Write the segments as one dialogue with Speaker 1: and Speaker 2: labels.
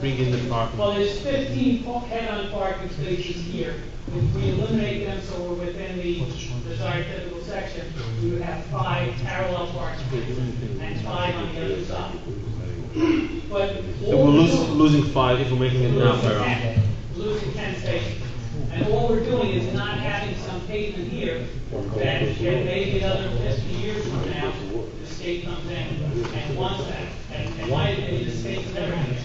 Speaker 1: bring in the parking.
Speaker 2: Well, there's fifteen pa- head-on parking spaces here. If we eliminate them so we're within the desired typical section, we would have five parallel parking spaces and five on the other side. But
Speaker 1: So we're
Speaker 2: all we're
Speaker 1: losing,
Speaker 2: doing,
Speaker 1: losing five if we're making it now.
Speaker 2: losing ten, losing ten spaces. And all we're doing is not having some pavement here that that maybe another fifty years from now, the state comes in and wants that. And and why did they, the state's never here?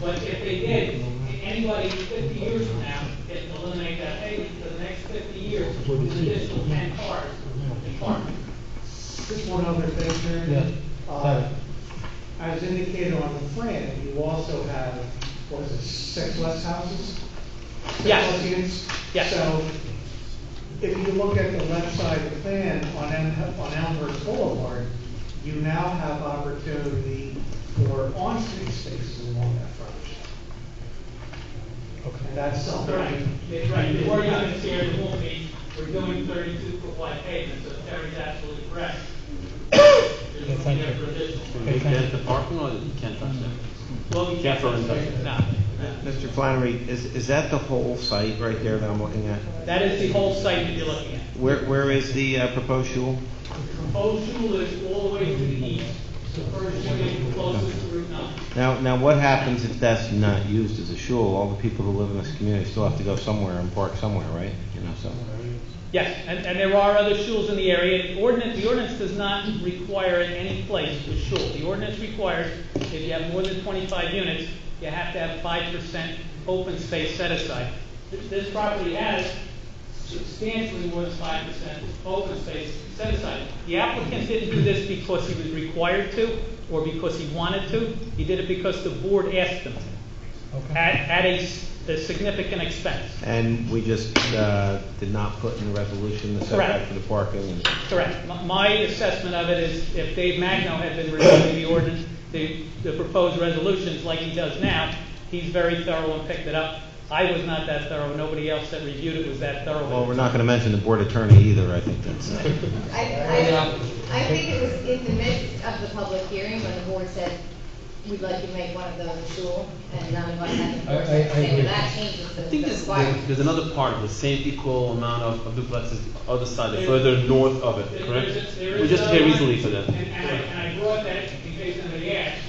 Speaker 2: But if they did, anybody fifty years from now can eliminate that payment for the next fifty years, an additional ten cars in parking.
Speaker 3: Just one other thing, Chairman. Uh, As indicated on the plan, you also have, what is it, six less houses? Six
Speaker 2: Yes.
Speaker 3: less units?
Speaker 2: Yes.
Speaker 3: So if you look at the left side of the plan on Elm- on Elmhurst Boulevard, you now have opportunity for on-street spaces along that frontage. And that's something.
Speaker 2: Right, They- right, they were not this year, they won't be, we're doing thirty-two foot wide pavement, so Terry's absolutely correct. There's no
Speaker 4: thank
Speaker 2: need
Speaker 4: you.
Speaker 2: for additional.
Speaker 1: Can you get the parking or you can't touch that?
Speaker 2: Well, we-
Speaker 1: Careful in touching.
Speaker 2: No, no.
Speaker 5: Mr. Flannery, is, is that the whole site right there that I'm looking at?
Speaker 2: That is the whole site that you're looking at.
Speaker 5: Where, where is the uh, proposed shul?
Speaker 2: Proposed shul is all the way to the east, the first unit closest to Route nine.
Speaker 5: Now, now what happens if that's not used as a shul? All the people who live in this community still have to go somewhere and park somewhere, right? You know, so.
Speaker 2: Yes, and, and there are other shuls in the area. The ordinance, the ordinance does not require in any place a shul. The ordinance requires, if you have more than twenty-five units, you have to have five percent open space set aside. This, this property has substantially more than five percent open space set aside. The applicant didn't do this because he was required to, or because he wanted to. He did it because the board asked him to, at, at a s- a significant expense.
Speaker 5: And we just uh, did not put in the resolution the
Speaker 2: Correct.
Speaker 5: setback for the parking. and-
Speaker 2: Correct. M- My assessment of it is if Dave Magno had been reviewing the ordinance, the, the proposed resolutions like he does now, he's very thorough and picked it up. I was not that thorough. Nobody else that reviewed it was that thorough.
Speaker 5: Well, we're not going to mention the board attorney either, I think that's.
Speaker 6: I, I, I think it was in the midst of the public hearing when the board said, we'd like you to make one of those a shul, and none of us had
Speaker 4: I- I- I
Speaker 6: endorsed it, saying,
Speaker 4: agree.
Speaker 6: well, that changes the
Speaker 1: I think
Speaker 6: the
Speaker 1: there's,
Speaker 6: requirement.
Speaker 1: there's another part, the same equal amount of, of duplexes, other side, further north of it,
Speaker 2: There-
Speaker 1: correct?
Speaker 2: there's a- there
Speaker 1: We
Speaker 2: is
Speaker 1: just pay
Speaker 2: another
Speaker 1: easily
Speaker 2: one,
Speaker 1: for that.
Speaker 2: And, and I, and I brought that in case somebody asked.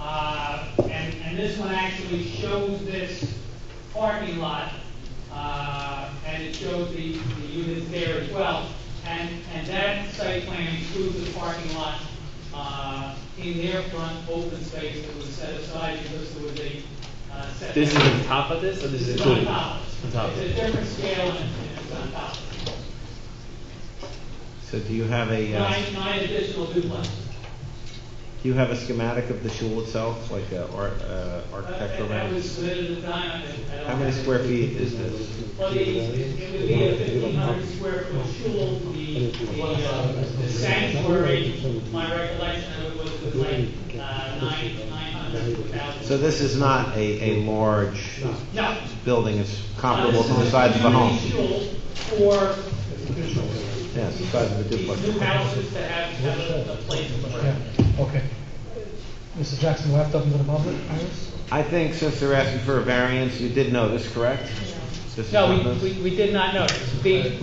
Speaker 2: Uh, and, and this one actually shows this parking lot, uh, and it shows the, the units there as well. And, and that site plan includes the parking lot, uh, in their front open space that was set aside because there was a, uh, setback.
Speaker 1: This is on top of this, or this is
Speaker 2: It's
Speaker 1: included?
Speaker 2: on top.
Speaker 1: On top of
Speaker 2: It's
Speaker 1: it.
Speaker 2: a different scale and it's on top.
Speaker 5: So do you have a, uh,
Speaker 2: Nine, nine additional duplexes.
Speaker 5: do you have a schematic of the shul itself, like a ar- uh, architectural?
Speaker 2: That
Speaker 5: rendering?
Speaker 2: was submitted at the time, I- I don't.
Speaker 5: How many square feet is this?
Speaker 2: Well, the, it would be a fifteen hundred square foot shul, the, the, uh, the sanctuary, my recollection of it was, was like, uh, nine, nine hundred to a thousand.
Speaker 5: So this is not a, a large
Speaker 2: No.
Speaker 5: building, it's
Speaker 2: no,
Speaker 5: comparable
Speaker 2: this
Speaker 5: to the
Speaker 2: is
Speaker 5: size of a home.
Speaker 2: community Shul for
Speaker 5: Yes, the size of a
Speaker 2: these new
Speaker 5: duplex.
Speaker 2: houses to have, have a, a place for it.
Speaker 4: Okay. Mr. Jackson, we'll have to open to the public, Iris?
Speaker 5: I think since they're asking for a variance, you did know this, correct? This is not
Speaker 2: No,
Speaker 5: this?
Speaker 2: we, we, we did not notice. The,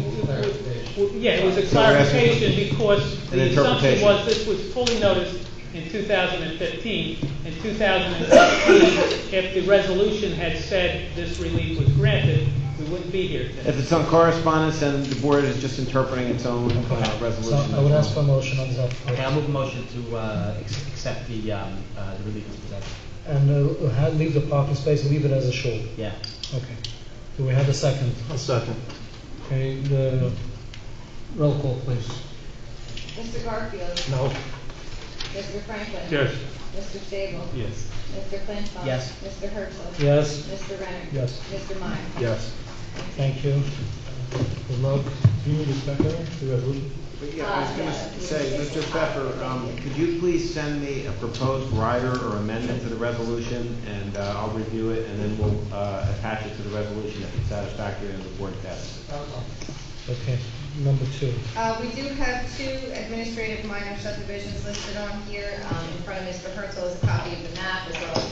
Speaker 2: yeah, it was a
Speaker 5: So we're asking-
Speaker 2: clarification because
Speaker 5: An
Speaker 2: the assumption
Speaker 5: interpretation.
Speaker 2: was this was fully noticed in two thousand and fifteen. In two thousand and sixteen, if the resolution had said this relief was granted, we wouldn't be here today.
Speaker 5: If it's on correspondence, then the board is just interpreting its own uh,
Speaker 4: So
Speaker 5: resolution.
Speaker 4: I would ask for a motion on that.
Speaker 7: Okay, I'll move a motion to uh, ex- accept the um, uh, the relief as presented.
Speaker 4: And uh, ha- leave the parking space, leave it as a shul.
Speaker 7: Yeah.
Speaker 4: Okay. Do we have a second?
Speaker 5: A second.
Speaker 4: Okay, the roll call, please.
Speaker 6: Mr. Garfield,
Speaker 5: No.
Speaker 6: Mr. Franklin.
Speaker 1: Yes.
Speaker 6: Mr. Sable.
Speaker 1: Yes.
Speaker 6: Mr. Flansbrough.
Speaker 7: Yes.
Speaker 6: Mr. Herzl.
Speaker 4: Yes?
Speaker 6: Mr. Renner.
Speaker 4: Yes.
Speaker 6: Mr. Meyer.
Speaker 5: Yes.
Speaker 4: Thank you. Good luck. Do you need this back there, the resolution?
Speaker 5: But yeah, I was gonna say, Mr. Pfeffer, um, could you please send me a proposed rider or amendment to the resolution, and uh, I'll review it, and then we'll uh, attach it to the resolution if it's satisfactory and the board passes it.
Speaker 4: Okay, number two.
Speaker 6: Uh, we do have two administrative minor subdivisions listed on here, um, in front of Mr. Herzl is a copy of the map as well as